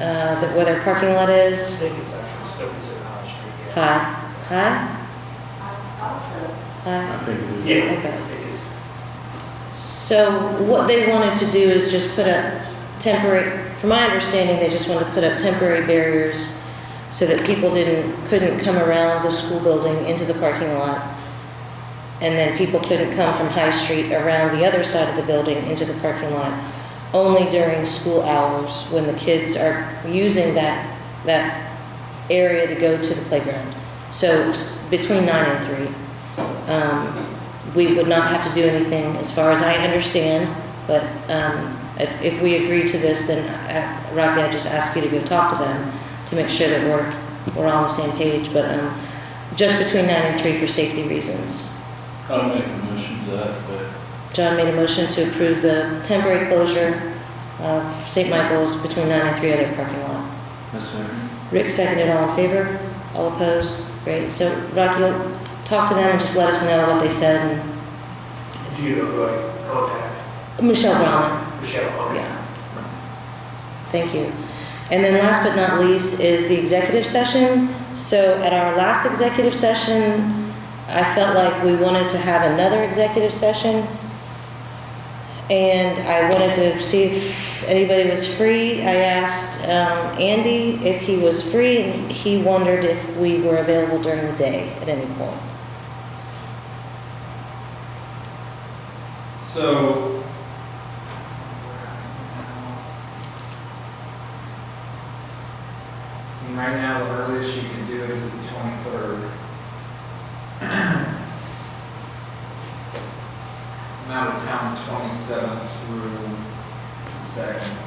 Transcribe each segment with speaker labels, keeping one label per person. Speaker 1: uh, the- where their parking lot is,
Speaker 2: think it's actually Stokes and Hodge Street. yeah.
Speaker 1: high, high, high.
Speaker 3: I think it is.
Speaker 2: Yeah,
Speaker 1: Okay.
Speaker 2: I think it's,
Speaker 1: So what they wanted to do is just put up temporary, from my understanding, they just wanted to put up temporary barriers so that people didn't, couldn't come around the school building into the parking lot. And then people couldn't come from High Street around the other side of the building into the parking lot, only during school hours when the kids are using that, that area to go to the playground. So s- between nine and three. Um, we would not have to do anything, as far as I understand, but um, if, if we agree to this, then uh, Rocky, I just ask you to go talk to them to make sure that we're, we're all on the same page, but um, just between nine and three for safety reasons.
Speaker 3: I'll make a motion to that, but
Speaker 1: John made a motion to approve the temporary closure of St. Michael's between nine and three other parking lot.
Speaker 3: that's it.
Speaker 1: Rick seconded, all in favor? All opposed? Great, so Rocky, talk to them and just let us know what they said, and
Speaker 2: do you know who I contact?
Speaker 1: Michelle Brown.
Speaker 2: Michelle Hunter?
Speaker 1: Yeah. Thank you. And then last but not least is the executive session. So at our last executive session, I felt like we wanted to have another executive session. And I wanted to see if anybody was free. I asked um, Andy if he was free, and he wondered if we were available during the day at any point.
Speaker 4: So. I mean, Right now, the earliest you can do it is the twenty-third. I'm out of town twenty-seventh through the second.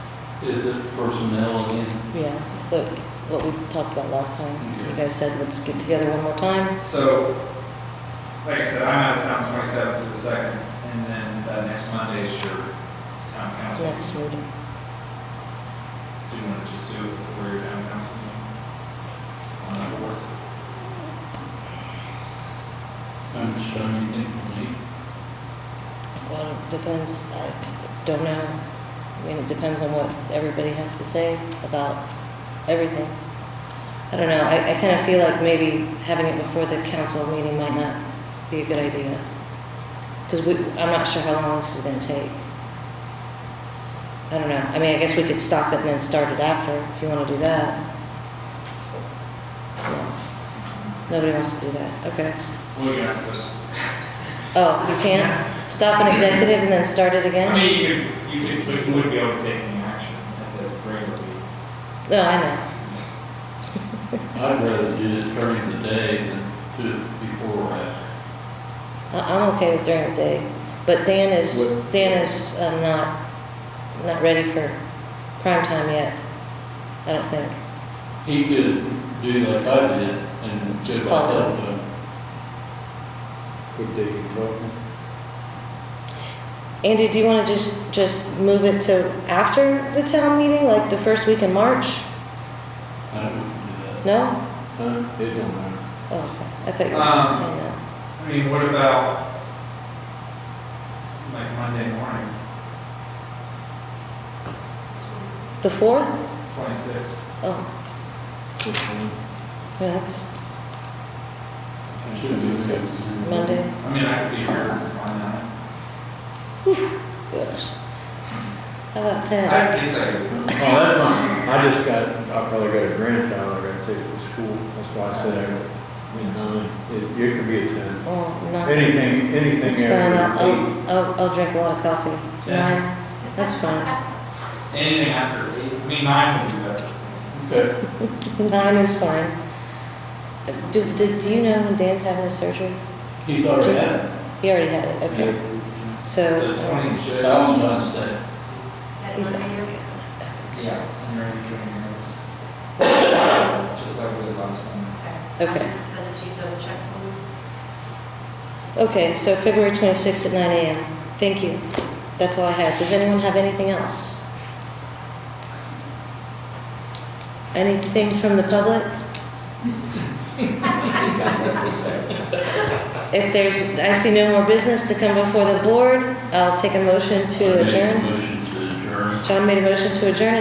Speaker 3: Is it personnel again?
Speaker 1: Yeah, it's the, what we talked about last time. You
Speaker 3: Okay.
Speaker 1: guys said, let's get together one more time.
Speaker 4: So, like I said, I'm out of town twenty-seventh to the second, and then uh, next Monday is your town council.
Speaker 1: Next meeting.
Speaker 4: Do you want to just do it before your town council meeting? On the fourth?
Speaker 3: I'm just trying to think, maybe.
Speaker 1: Well, it depends, I don't know. I mean, it depends on what everybody has to say about everything. I don't know, I, I kind of feel like maybe having it before the council meeting might not be a good idea. Because we, I'm not sure how long this is gonna take. I don't know, I mean, I guess we could stop it and then start it after, if you want to do that. Nobody wants to do that, okay.
Speaker 4: We're gonna have to just,
Speaker 1: Oh, you can't? Stop an executive and then start it again?
Speaker 4: I mean, you could, you could, we wouldn't be able to take any action at the regular meeting.
Speaker 1: No, I know.
Speaker 3: I'd rather do it during the day than do it before or after.
Speaker 1: I- I'm okay with during the day, but Dan is,
Speaker 3: What-
Speaker 1: Dan is um, not, not ready for prime time yet, I don't think.
Speaker 3: He could do like I did and
Speaker 1: Just
Speaker 3: just by
Speaker 1: call him.
Speaker 3: telephone.
Speaker 5: What day you talking?
Speaker 1: Andy, do you want to just, just move it to after the town meeting, like the first week in March?
Speaker 3: I wouldn't do that.
Speaker 1: No?
Speaker 5: Huh? It don't matter.
Speaker 1: Oh, I thought you
Speaker 4: Um,
Speaker 1: were saying that.
Speaker 4: I mean, what about, like, Monday morning,
Speaker 1: The fourth?
Speaker 4: twenty-sixth?
Speaker 1: Oh,
Speaker 5: It's fine.
Speaker 1: yeah, that's,
Speaker 3: Should be
Speaker 1: it's
Speaker 3: okay.
Speaker 1: it's Monday.
Speaker 4: I mean, I could be here on that.
Speaker 1: Gosh. How about ten?
Speaker 4: I, it's like,
Speaker 5: Oh, that's fine. I just got, I probably got a grandchild I gotta take to school. That's why I said I, you know, it, it could be a ten.
Speaker 1: Oh, not.
Speaker 5: Anything,
Speaker 1: It's
Speaker 5: anything
Speaker 1: fine, I'll,
Speaker 5: after
Speaker 1: I'll,
Speaker 5: eight.
Speaker 1: I'll, I'll drink a lot of coffee.
Speaker 4: Yeah.
Speaker 1: Nine, that's fine.
Speaker 4: anything after eight, I mean, nine would be better.
Speaker 3: Okay,
Speaker 1: Nine is fine. Do, do, do you know when Dan's having his surgery?
Speaker 3: he's already had
Speaker 1: He already had it,
Speaker 3: it.
Speaker 1: okay.
Speaker 3: Yeah.
Speaker 1: So,
Speaker 4: The twenty-sixth.
Speaker 3: Valentine's Day.
Speaker 1: he's not.
Speaker 4: Yeah, and you're doing those. Just like with the last one.
Speaker 1: Okay.
Speaker 6: So that you double check them.
Speaker 1: Okay, so February twenty-sixth at nine AM. Thank you. That's all I had. Does anyone have anything else? Anything from the public? If there's, I see no more business to come before the board, I'll take a motion
Speaker 3: I
Speaker 1: to
Speaker 3: make a
Speaker 1: adjourn.
Speaker 3: Motion to adjourn.
Speaker 1: John made a motion to adjourn.